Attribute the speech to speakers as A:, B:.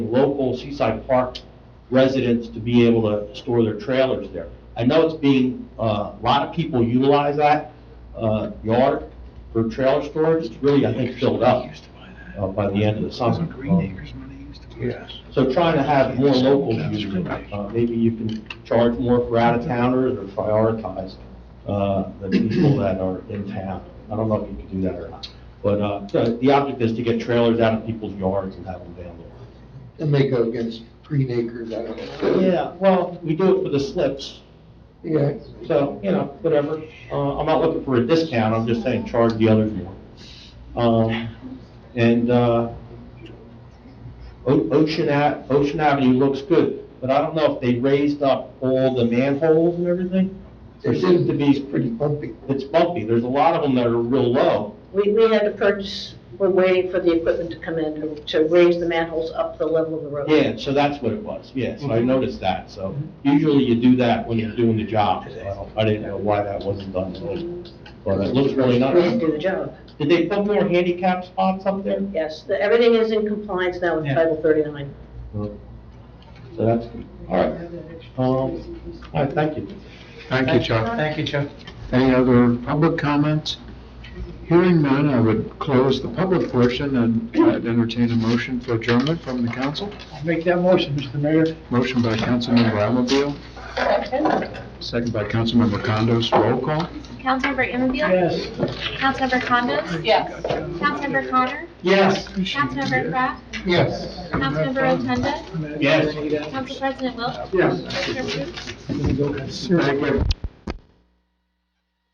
A: local Seaside Park residents to be able to store their trailers there. I know it's being, uh, a lot of people utilize that uh, yard for trailer storage. It's really, I think, filled up uh, by the end of the summer. So trying to have more locals use it, uh, maybe you can charge more for out-of-towners or prioritize, uh, the people that are in town. I don't know if you can do that or not, but, uh, the- the object is to get trailers out of people's yards and have them vandalized.
B: And they go against green acres, I don't know.
A: Yeah, well, we do it for the slips,
B: Yeah.
A: so, you know, whatever. Uh, I'm not looking for a discount, I'm just saying charge the others more. Um, and, uh, O- Ocean Ave, Ocean Avenue looks good, but I don't know if they raised up all the manholes and everything. There seems to be,
B: pretty bumpy.
A: it's bumpy, there's a lot of them that are real low.
C: We, we had to purchase, we're waiting for the equipment to come in to- to raise the manholes up the level of the road.
A: Yeah, so that's what it was, yeah, so I noticed that, so usually you do that when you're doing the job. so I don't- I didn't know why that wasn't done, but it looks really
C: We didn't
A: nice.
C: do the job.
A: Did they put more handicap spots up there?
C: Yes, the- everything is in compliance now with
D: Yeah.
C: Title 39.
A: So that's, good. all right. Um, all right, thank you.
E: Thank you, Chuck.
D: Thank you, Chuck.
E: Any other public comments? Hearing none, I would close the public portion and I'd entertain a motion for adjournment from the council.
D: Make that motion, Mr. Mayor.
E: Motion by Councilmember Ammaville, second by Councilmember Condos, roll call.
F: Councilmember Anfield?
D: Yes.
F: Councilmember Condos? Yes. Councilmember Connor?
D: Yes.
F: Councilmember Kraft?
B: Yes.
F: Councilmember Rotunda?
A: Yes.
F: Council President Wilk?
E: Yes.
F: Mayor Proops?
E: Thank you.